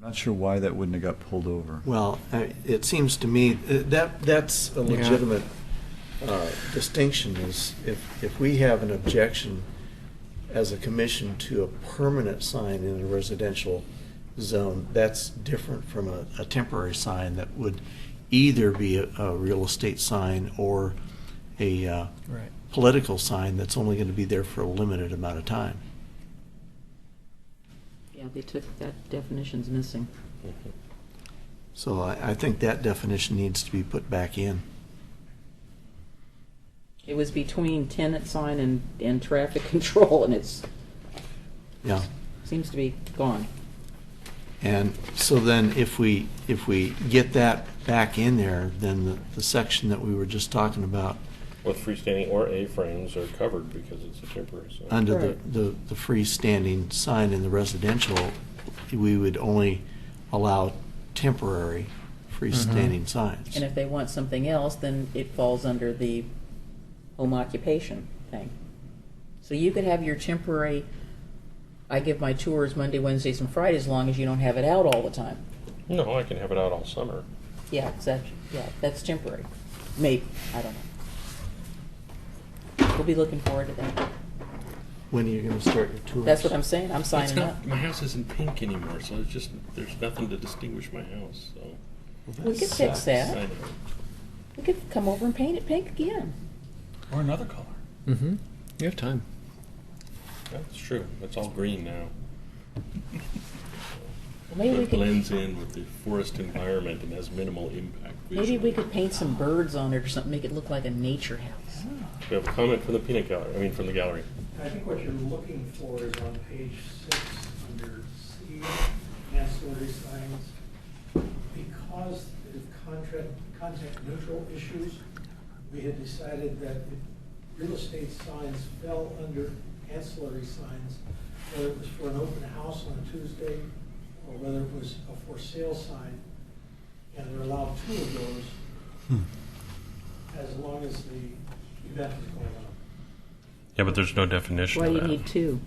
Not sure why that wouldn't have got pulled over. Well, I- it seems to me, uh, that, that's a Yeah. legitimate uh, distinction is if, if we have an objection as a commission to a permanent sign in a residential zone, that's different from a, a temporary sign that would either be a, a real estate sign or a uh, Right. political sign that's only going to be there for a limited amount of time. Yeah, they took, that definition's missing. So I, I think that definition needs to be put back in. It was between tenant sign and, and traffic control, and it's, Yeah. seems to be gone. And so then if we, if we get that back in there, then the, the section that we were just talking about, With freestanding or A-frames are covered because it's a temporary sign. under the, Right. the, the freestanding sign in the residential, we would only allow temporary Mm-hmm. freestanding signs. And if they want something else, then it falls under the home occupation thing. So you could have your temporary, I give my tours Monday, Wednesdays, and Fridays, as long as you don't have it out all the time. No, I can have it out all summer. Yeah, that's, yeah, that's temporary. Maybe, I don't know. We'll be looking forward to that. When are you gonna start your tours? That's what I'm saying, I'm signing up. My house isn't pink anymore, so it's just, there's nothing to distinguish my house, so. Well, We could fix I that. know. We could come over and paint it pink again. Or another color. Mm-hmm. You have time. That's true. It's all green now. Maybe we It could, blends in with the forest environment and has minimal impact maybe we visually. could paint some birds on it or something, make it look like a nature house. We have a comment from the peanut gallery, I mean, from the gallery. I think what you're looking for is on page six, under C, ancillary signs. Because of contract, content neutral issues, we had decided that if real estate signs fell under ancillary signs, whether it was for an open house on a Tuesday, or whether it was a for sale sign, and there are allowed two of those, as long as the event is going on. Yeah, but there's no definition Why do you need two?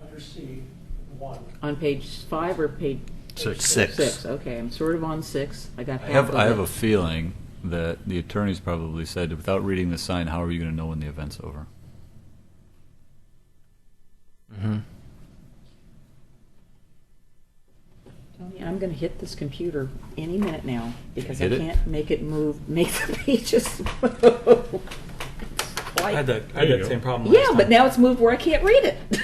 under C, one. On page five or page Six. six? Okay, I'm sort of on six. I got I half have, of I have it. a feeling that the attorneys probably said, without reading the sign, how are you going to know when the event's over? Tony, I'm gonna hit this computer any minute now because I Hit it? can't make it move, make the pages move. I had that, There I you had go. that same problem Yeah, last but time. now it's moved where I can't read it.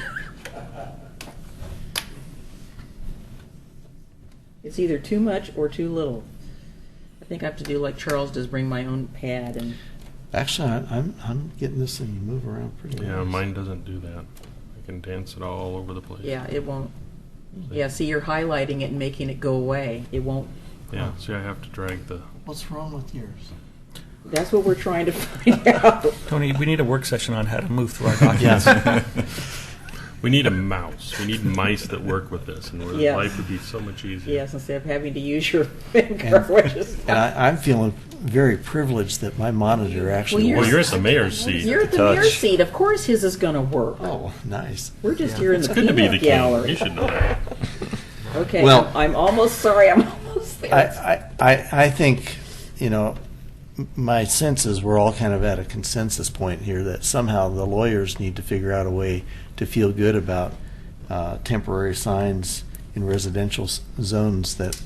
It's either too much or too little. I think I have to do like Charles does, bring my own pad and, Actually, I- I'm, I'm getting this thing to move around pretty well. Yeah, mine doesn't do that. I can dance it all over the place. yeah, it won't. Yeah, see, you're highlighting it and making it go away. It won't, Yeah, see, I have to drag the, What's wrong with yours? that's what we're trying to find out. Tony, we need a work session on how to move through our documents. Yes. we need a mouse. We need mice that work with this, and where Yes. life would be so much easier. Yes, instead of having to use your finger, which is. And I, I'm feeling very privileged that my monitor actually you're- Well, works. you're at the mayor's seat. You're at the touch. mayor's seat, of course his is gonna work. Oh, nice. We're just here in It's the good to be the peanut king. You gallery. should know that. Okay, Well- I'm- I'm almost, sorry, I'm almost I, there. I, I I think, you know, m- my sense is we're all kind of at a consensus point here that somehow the lawyers need to figure out a way to feel good about uh, temporary signs in residential s- zones that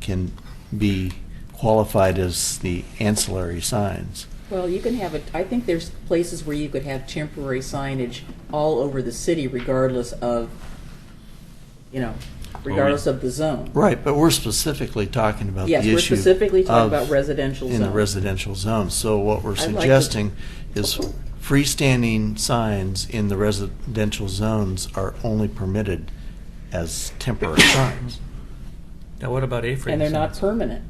can be qualified as the ancillary signs. Well, you can have it, I think there's places where you could have temporary signage all over the city regardless of, you know, regardless of the zone. Right, but we're specifically talking about the Yes, issue. we're specifically talking of- about residential In the zone. residential zone, so what we're like to- Oh, suggesting is freestanding signs in the residential zones are only permitted as temporary signs. Now, what about A-frames? And they're not permanent.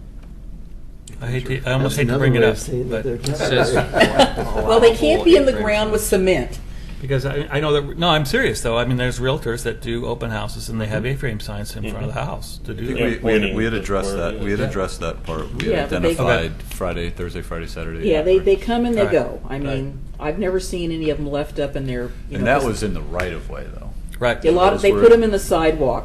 I hate to, I almost hate to bring it up, but, Well, they can't be in the ground with cement. because I, I know that, no, I'm serious, though. I mean, there's realtors that do open houses, and they have Mm-hmm. A-frame signs in front of the house to do Yeah, that. We, we had, pointing we had to addressed where it that, we had is. addressed that part. We had Yeah, but they- identified Friday, Thursday, Friday, Saturday. Yeah, they, they come and they Right. go. I mean, I've never seen any of them left up in their, you know. And that just- was in the right of way, though. Right. A lot of, they Those put were- them in the sidewalk.